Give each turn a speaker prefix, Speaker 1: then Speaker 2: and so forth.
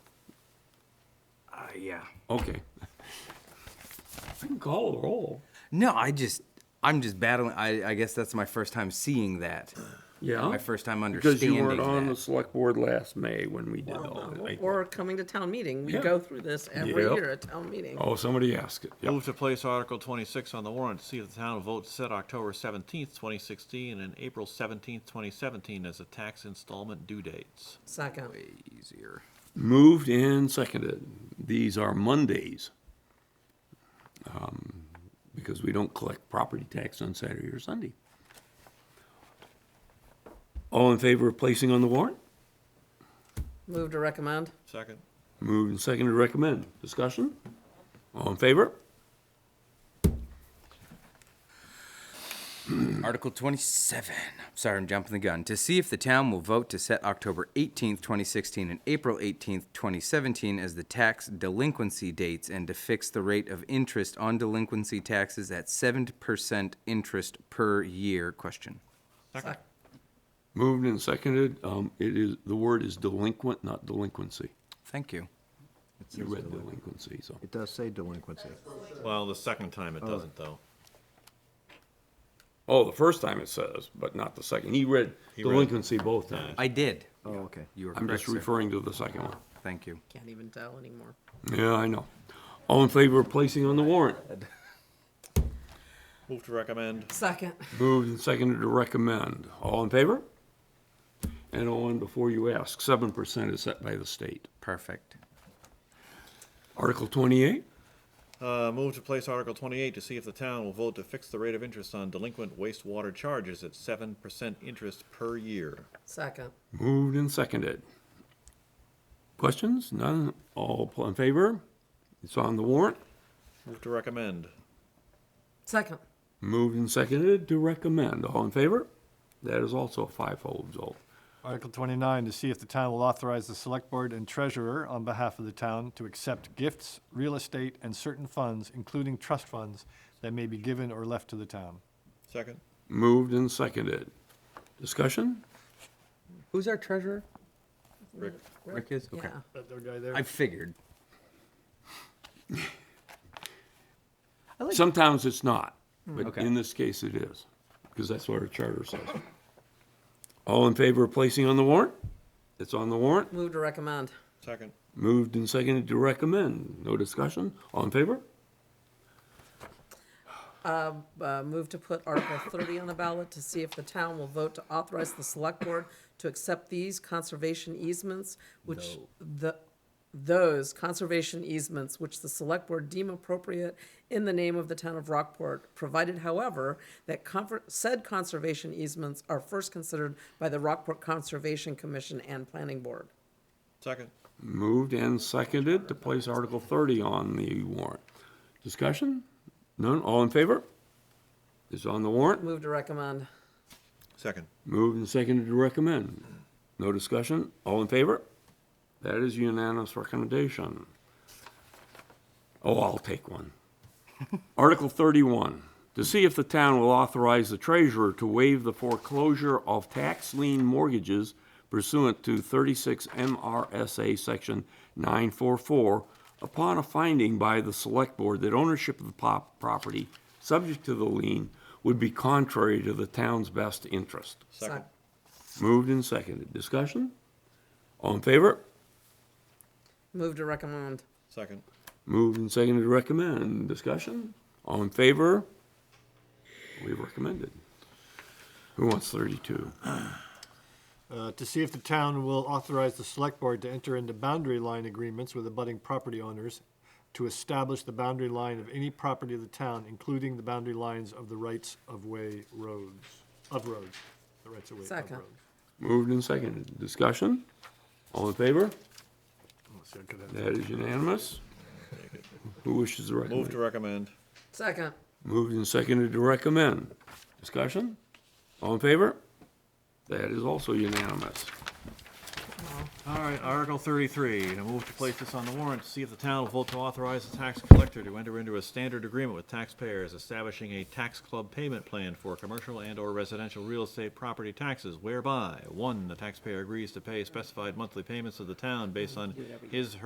Speaker 1: Yeah.
Speaker 2: Okay. I can call a roll.
Speaker 1: No, I just, I'm just battling. I, I guess that's my first time seeing that.
Speaker 2: Yeah.
Speaker 1: My first time
Speaker 2: Because
Speaker 1: understanding
Speaker 2: you weren't on the
Speaker 1: that.
Speaker 2: select board last May when we did all
Speaker 3: Or-
Speaker 2: that.
Speaker 3: Uh, Or coming to town meeting. We
Speaker 2: Oh, Yeah.
Speaker 3: go through this every
Speaker 2: Yep.
Speaker 3: year at town meeting.
Speaker 2: Oh, somebody asked it. Yep.
Speaker 4: Move to place Article 26 on the warrant, to see if the town votes set October 17th, 2016, and April 17th, 2017 as the tax installment due dates.
Speaker 3: Second.
Speaker 1: Easier.
Speaker 2: Moved and seconded. These are Mondays. um, Because we don't collect property tax on Saturday or Sunday. All in favor of placing on the warrant?
Speaker 3: Move to recommend.
Speaker 4: Second?
Speaker 2: Moved and seconded to recommend. Discussion? All in favor?
Speaker 1: Article 27. Sorry, I'm jumping the gun. To see if the town will vote to set October 18th, 2016 and April 18th, 2017 as the tax delinquency dates and to fix the rate of interest on delinquency taxes at 7% interest per year. Question.
Speaker 4: Second.
Speaker 2: Moved and seconded. Um, It is, the word is delinquent, not delinquency.
Speaker 1: Thank you.
Speaker 2: You read delinquency, so.
Speaker 5: It does say delinquency.
Speaker 4: Well, the second time it doesn't, though.
Speaker 2: Oh, the first time it says, but not the second. He read
Speaker 4: read-
Speaker 2: delinquency both times.
Speaker 1: I did.
Speaker 5: Oh, okay.
Speaker 1: You were
Speaker 2: I'm
Speaker 1: correct,
Speaker 2: just
Speaker 1: sir.
Speaker 2: referring to the second one.
Speaker 1: Thank you.
Speaker 3: Can't even tell anymore.
Speaker 2: Yeah, I know. All in favor of placing on the warrant?
Speaker 4: Move to recommend.
Speaker 3: Second.
Speaker 2: Moved and seconded to recommend. All in favor? And on, before you ask, seven percent is set by the state.
Speaker 1: Perfect.
Speaker 2: Article twenty-eight?
Speaker 4: Uh, Move to place Article 28 to see if the town will vote to fix the rate of interest on delinquent wastewater charges at 7% interest per year.
Speaker 3: Second.
Speaker 2: Moved and seconded. Questions? None? All in favor? It's on the warrant.
Speaker 4: Move to recommend.
Speaker 3: Second.
Speaker 2: Moved and seconded to recommend. All in favor? That is also a five-fold result.
Speaker 6: Article 29, to see if the town will authorize the select board and treasurer on behalf of the town to accept gifts, real estate, and certain funds, including trust funds, that may be given or left to the town.
Speaker 4: Second?
Speaker 2: Moved and seconded. Discussion?
Speaker 1: Who's our treasurer?
Speaker 4: Rick?
Speaker 1: Rick is? Okay.
Speaker 3: Yeah.
Speaker 1: I figured.
Speaker 2: Sometimes it's not, but
Speaker 1: Okay.
Speaker 2: in this case it is, because that's what our charter says. All in favor of placing on the warrant? It's on the warrant.
Speaker 3: Move to recommend.
Speaker 4: Second?
Speaker 2: Moved and seconded to recommend. No discussion? All in favor?
Speaker 3: Uh, move to put Article thirty on the ballot to see if the town will vote to authorize the select board to accept these conservation easements, which the, those conservation easements which the select board deem appropriate in the name of the town of Rockport, provided however, that conver- said conservation easements are first considered by the Rockport Conservation Commission and Planning Board.
Speaker 4: Second?
Speaker 2: Moved and seconded to place Article 30 on the warrant. Discussion? None? All in favor? It's on the warrant.
Speaker 3: Move to recommend.
Speaker 4: Second.
Speaker 2: Moved and seconded to recommend. No discussion? All in favor? That is unanimous recommendation. Oh, I'll take one. Article 31, to see if the town will authorize the treasurer to waive the foreclosure of tax lien mortgages pursuant to 36 MRSA Section 944 upon a finding by the Select Board that ownership of the pop- property subject to the lien would be contrary to the town's best interest.
Speaker 4: Second.
Speaker 2: Moved and seconded. Discussion? All in favor?
Speaker 3: Move to recommend.
Speaker 4: Second.
Speaker 2: Moved and seconded to recommend. Discussion? All in favor? We recommended. Who wants thirty-two?
Speaker 6: Uh, To see if the town will authorize the select board to enter into boundary line agreements with abutting property owners to establish the boundary line of any property of the town, including the boundary lines of the rights-of-way roads, of roads, the rights-of-way of
Speaker 3: Second.
Speaker 6: roads.
Speaker 2: Moved and seconded. Discussion? All in favor?
Speaker 6: Let's Oh, see, I could have-
Speaker 2: That is unanimous. Who wishes to
Speaker 4: Move
Speaker 2: recommend?
Speaker 4: to recommend.
Speaker 3: Second.
Speaker 2: Moved and seconded to recommend. Discussion? All in favor? That is also unanimous.
Speaker 4: All right, Article thirty-three, to move to place this on the warrant, to see if the town will vote to authorize the tax collector to enter into a standard agreement with taxpayers establishing a tax club payment plan for commercial and/or residential real estate property taxes whereby, one, the taxpayer agrees to pay specified monthly payments of the town based on his,